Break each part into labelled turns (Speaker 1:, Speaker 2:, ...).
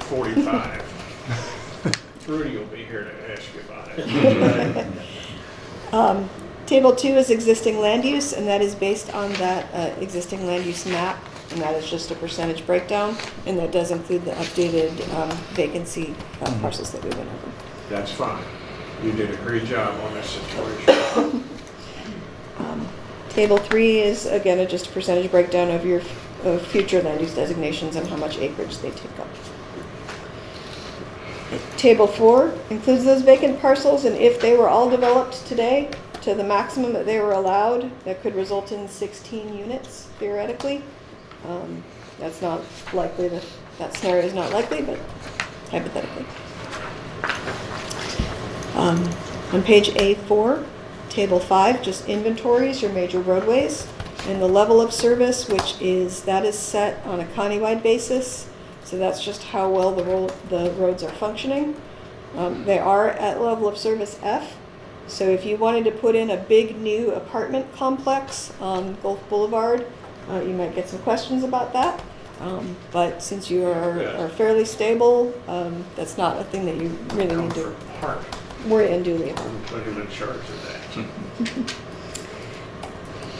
Speaker 1: forty-five. Rudy will be here to ask you about it.
Speaker 2: Table two is existing land use, and that is based on that uh, existing land use map, and that is just a percentage breakdown, and that does include the updated um, vacancy uh, parcels that we went over.
Speaker 1: That's fine. You did a great job on this situation.
Speaker 2: Table three is, again, a- just a percentage breakdown of your, of future land use designations and how much acreage they take up. Table four includes those vacant parcels, and if they were all developed today to the maximum that they were allowed, that could result in sixteen units theoretically. Um, That's not likely, that that scenario is not likely, but hypothetically. Um, On page A4, Table 5, just inventories, your major roadways, and the level of service, which is, that is set on a countywide basis, so that's just how well the ro- the roads are functioning. Um, They are at level of service F, so if you wanted to put in a big new apartment complex on Gulf Boulevard, uh, you might get some questions about that. Um, But since you are
Speaker 1: Yeah.
Speaker 2: are fairly stable, um, that's not a thing that you really need to
Speaker 1: Comfort Park,
Speaker 2: worry unduly about.
Speaker 1: I'm putting him in charge of that.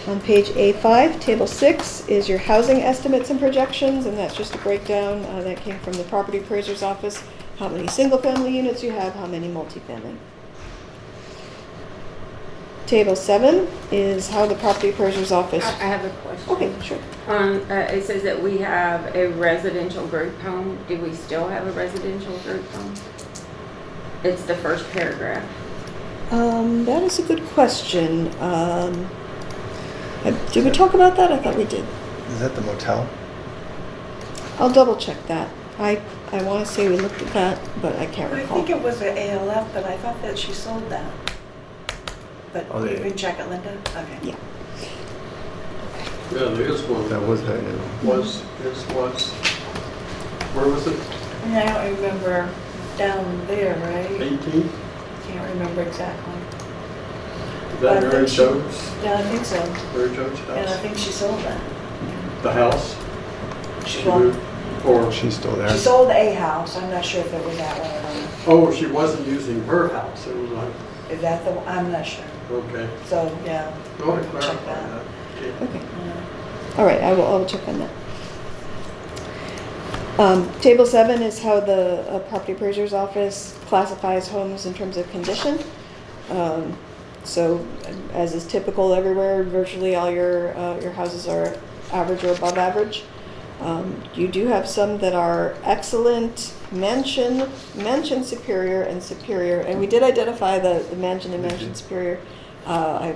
Speaker 2: On page A5, table six is your housing estimates and projections, and that's just a breakdown uh, that came from the property appraiser's office. How many single-family units you have, how many multifamily. Table seven is how the property appraiser's office.
Speaker 3: I I have a question.
Speaker 2: Okay, sure.
Speaker 3: Um, uh, it says that we have a residential group home. Do we still have a residential group home? It's the first paragraph.
Speaker 2: Um, that is a good question. Um, uh, did we talk about that? I thought we did.
Speaker 4: Is that the motel?
Speaker 2: I'll double-check that. I, I want to say we looked at that, but I can't
Speaker 5: I
Speaker 2: recall.
Speaker 5: think it was an ALF, but I thought that she sold that. But
Speaker 4: Oh,
Speaker 5: you
Speaker 4: they-
Speaker 5: can check it, Linda? Okay.
Speaker 2: Yeah.
Speaker 6: Yeah, there is one.
Speaker 4: That was that. yeah.
Speaker 6: Was, is, was, where was it?
Speaker 5: And I don't remember down there, right?
Speaker 6: Eighteen?
Speaker 5: Can't remember exactly.
Speaker 6: Is
Speaker 5: But I
Speaker 6: that Mary
Speaker 5: think she-
Speaker 6: Jones,
Speaker 5: Yeah, I think so.
Speaker 6: Mary Jones'
Speaker 5: And I
Speaker 6: house?
Speaker 5: think she sold that.
Speaker 6: The house?
Speaker 5: She
Speaker 6: She
Speaker 5: sold,
Speaker 6: moved, or,
Speaker 4: She's still there.
Speaker 5: she sold a house. I'm not sure if it was that one or not.
Speaker 6: oh, she wasn't using her house, it was like,
Speaker 5: Is that the, one? I'm not sure.
Speaker 6: okay.
Speaker 5: So, yeah.
Speaker 6: Go ahead,
Speaker 5: Check
Speaker 6: clarify
Speaker 5: that.
Speaker 6: that. Okay.
Speaker 2: Okay.
Speaker 5: yeah.
Speaker 2: All right, I will, I will check on that. Um, Table seven is how the uh, property appraiser's office classifies homes in terms of condition. Um, So as is typical everywhere, virtually all your, uh, your houses are average or above average. Um, You do have some that are excellent, mansion, mansion superior and superior. And we did identify the the mansion and mansion superior. Uh, I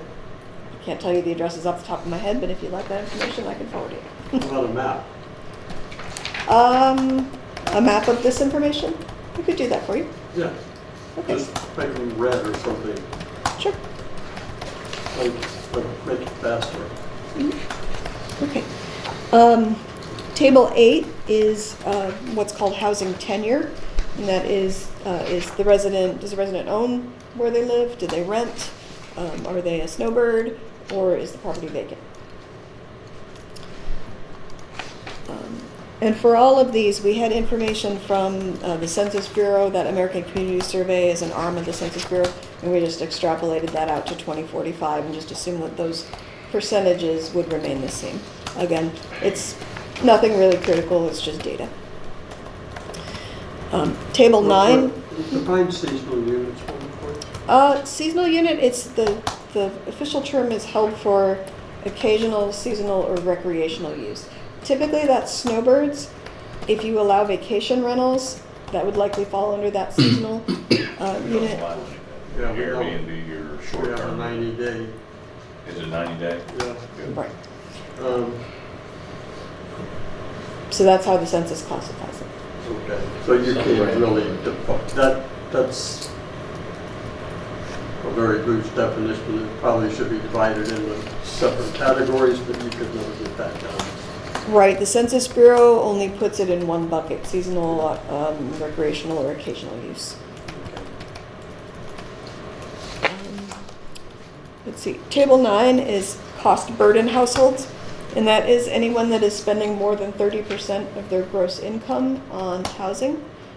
Speaker 2: can't tell you the addresses off the top of my head, but if you'd like that information, I can forward it.
Speaker 6: What About a map.
Speaker 2: Um, a map of this information? We could do that for you.
Speaker 6: Yeah,
Speaker 2: Okay,
Speaker 6: just make them red or something,
Speaker 2: sure.
Speaker 6: like, like make it faster.
Speaker 2: Okay. Um, table eight is, uh, what's called housing tenure. And that is, uh, is the resident, does the resident own where they live? Do they rent? Um, are they a snowbird? Or is the property vacant? Um, And for all of these, we had information from uh, the Census Bureau, that American Community Survey is an arm of the Census Bureau, and we just extrapolated that out to 2045 and just assumed that those percentages would remain the same. Again, it's nothing really critical, it's just data. Um, Table
Speaker 6: What-
Speaker 2: nine.
Speaker 6: what- Define seasonal units, one more.
Speaker 2: Uh, seasonal unit, it's the, the official term is held for occasional, seasonal, or recreational use. Typically, that's snowbirds. If you allow vacation rentals, that would likely fall under that seasonal, uh, unit.
Speaker 6: Yeah, we don't-
Speaker 7: Airbnb, your
Speaker 6: We
Speaker 7: short
Speaker 6: have a
Speaker 7: term,
Speaker 6: ninety day,
Speaker 7: is it ninety day?
Speaker 6: yeah.
Speaker 7: Good.
Speaker 2: Right.
Speaker 6: Um,
Speaker 2: So that's how the census classifies it.
Speaker 6: Okay, so you can't really, defi- that, that's a very loose definition, it probably should be divided into separate categories, but you could never get that down.
Speaker 2: Right, the Census Bureau only puts it in one bucket, seasonal, um, recreational, or occasional use. Um, Let's see, table nine is cost burden households, and that is anyone that is spending more than thirty percent of their gross income on housing.